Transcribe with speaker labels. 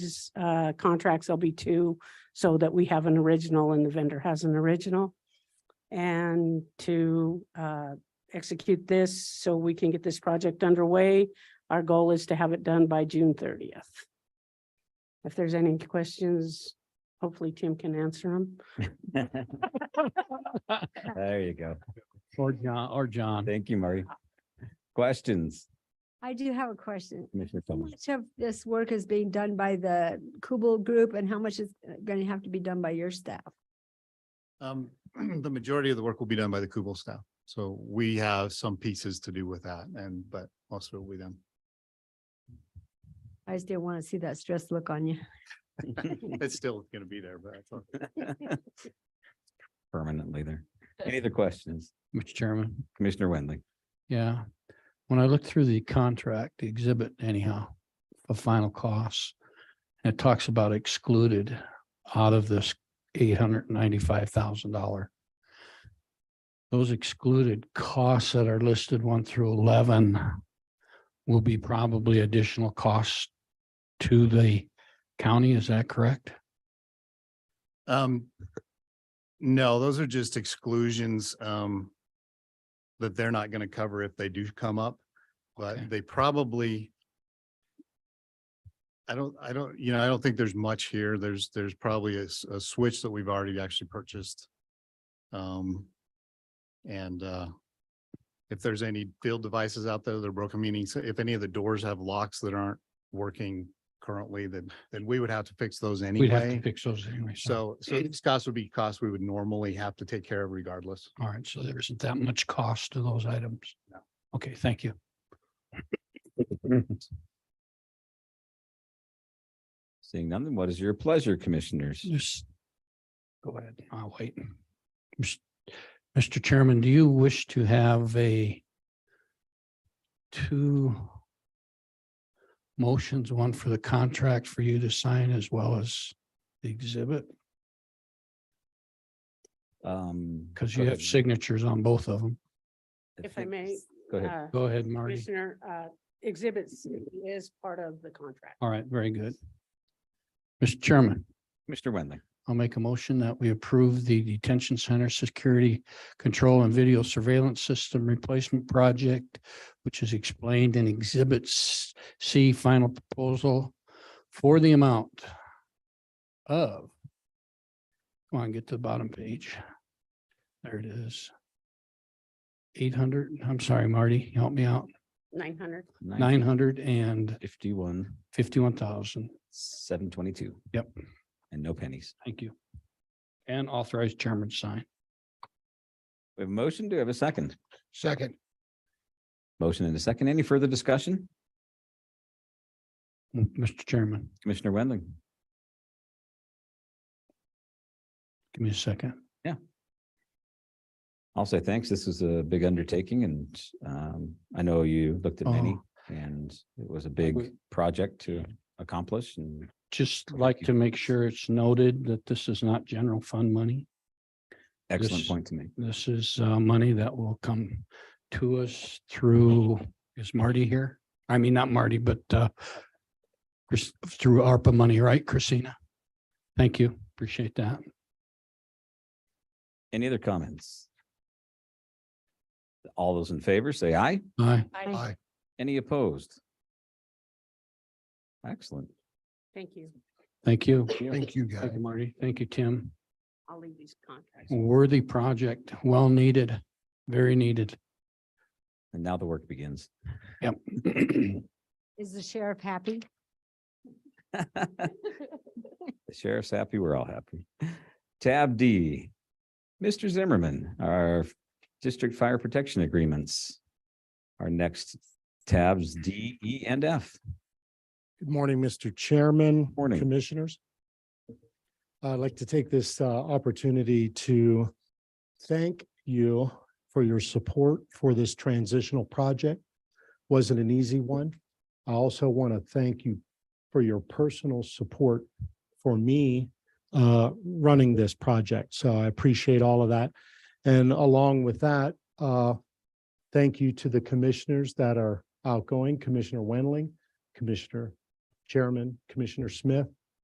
Speaker 1: these, uh, contracts, there'll be two, so that we have an original and the vendor has an original. And to, uh, execute this so we can get this project underway, our goal is to have it done by June thirtieth. If there's any questions, hopefully Tim can answer them.
Speaker 2: There you go.
Speaker 3: Or John, or John.
Speaker 2: Thank you, Murray. Questions,
Speaker 4: I do have a question.
Speaker 2: Commissioner
Speaker 4: How
Speaker 2: Thomas?
Speaker 4: much of this work is being done by the Kubel Group and how much is going to have to be done by your staff?
Speaker 5: Um, the majority of the work will be done by the Kubel staff. So we have some pieces to do with that and, but most of it will be done.
Speaker 4: I just didn't want to see that stress look on you.
Speaker 5: It's still gonna be there, but I thought-
Speaker 2: Permanently there. Any other questions?
Speaker 3: Mr. Chairman,
Speaker 2: Commissioner Wendling?
Speaker 3: yeah. When I looked through the contract, the exhibit anyhow, of final costs, and it talks about excluded out of this eight hundred ninety-five thousand dollar. Those excluded costs that are listed one through eleven will be probably additional costs to the county, is that correct?
Speaker 5: Um, no, those are just exclusions, um, that they're not gonna cover if they do come up,
Speaker 3: Okay.
Speaker 5: but they probably I don't, I don't, you know, I don't think there's much here. There's, there's probably a, s- a switch that we've already actually purchased. Um, and, uh, if there's any field devices out there that are broken, meaning so if any of the doors have locks that aren't working currently, then, then we would have to fix those anyway.
Speaker 3: We'd have to fix those anyway.
Speaker 5: So, so these costs would be costs we would normally have to take care of regardless.
Speaker 3: All right, so there isn't that much cost to those items?
Speaker 5: No.
Speaker 3: Okay, thank you.
Speaker 2: Seeing none, then what is your pleasure, commissioners?
Speaker 3: Just go ahead, I'll wait. Mis- Mr. Chairman, do you wish to have a two motions, one for the contract for you to sign as well as the exhibit?
Speaker 2: Um.
Speaker 3: Because
Speaker 2: go
Speaker 3: you have
Speaker 2: ahead.
Speaker 3: signatures on both of them.
Speaker 1: If I may.
Speaker 2: Go ahead.
Speaker 1: uh,
Speaker 3: Go ahead, Marty.
Speaker 1: Commissioner, uh, exhibit C is part of the contract.
Speaker 3: All right, very good. Mr. Chairman.
Speaker 2: Commissioner Wendling,
Speaker 3: I'll make a motion that we approve the detention center security control and video surveillance system replacement project, which is explained in Exhibit S- C final proposal for the amount of, come on, get to the bottom page. There it is. Eight hundred, I'm sorry, Marty, help me out,
Speaker 1: Nine hundred.
Speaker 3: nine hundred and
Speaker 2: fifty-one,
Speaker 3: fifty-one thousand.
Speaker 2: seven twenty-two.
Speaker 3: Yep.
Speaker 2: And no pennies.
Speaker 3: Thank you. And authorized chairman to sign.
Speaker 2: We have a motion. Do we have a second?
Speaker 3: Second.
Speaker 2: Motion and a second. Any further discussion?
Speaker 3: Mr. Chairman.
Speaker 2: Commissioner Wendling?
Speaker 3: Give me a second.
Speaker 2: I'll say thanks. This was a big undertaking and um, I know you looked at many
Speaker 3: Oh.
Speaker 2: and it was a big
Speaker 3: would-
Speaker 2: project to accomplish and
Speaker 3: Just like to make sure it's noted that this is not general fund money.
Speaker 2: excellent
Speaker 3: This-
Speaker 2: point to make.
Speaker 3: This is uh money that will come to us through, is Marty here? I mean, not Marty, but uh Chris, through ARPA money, right, Christina? Thank you. Appreciate that.
Speaker 2: Any other comments? All those in favor, say aye.
Speaker 3: Aye.
Speaker 5: Aye.
Speaker 2: Any opposed? Excellent.
Speaker 1: Thank you.
Speaker 3: Thank you.
Speaker 2: Thank
Speaker 3: you, guys. Thank you, Marty. Thank you, Tim.
Speaker 1: I'll leave these contracts.
Speaker 3: Worthy project, well needed, very needed.
Speaker 2: And now the work begins.
Speaker 3: Yep.
Speaker 2: The
Speaker 4: Is the sheriff happy?
Speaker 2: sheriff's happy, we're all happy. Tab D, Mr. Zimmerman, our district fire protection agreements. Our next tabs D, E, and F.
Speaker 6: Good morning, Mr. Chairman.
Speaker 2: Morning.
Speaker 6: Commissioners. I'd like to take this uh, opportunity to thank you for your support for this transitional project. Wasn't an easy one. I also want to thank you for your personal support for me uh, running this project. So I appreciate all of that. And along with that, uh, thank you to the commissioners that are outgoing, Commissioner Wendling, Commissioner Chairman Commissioner Smith,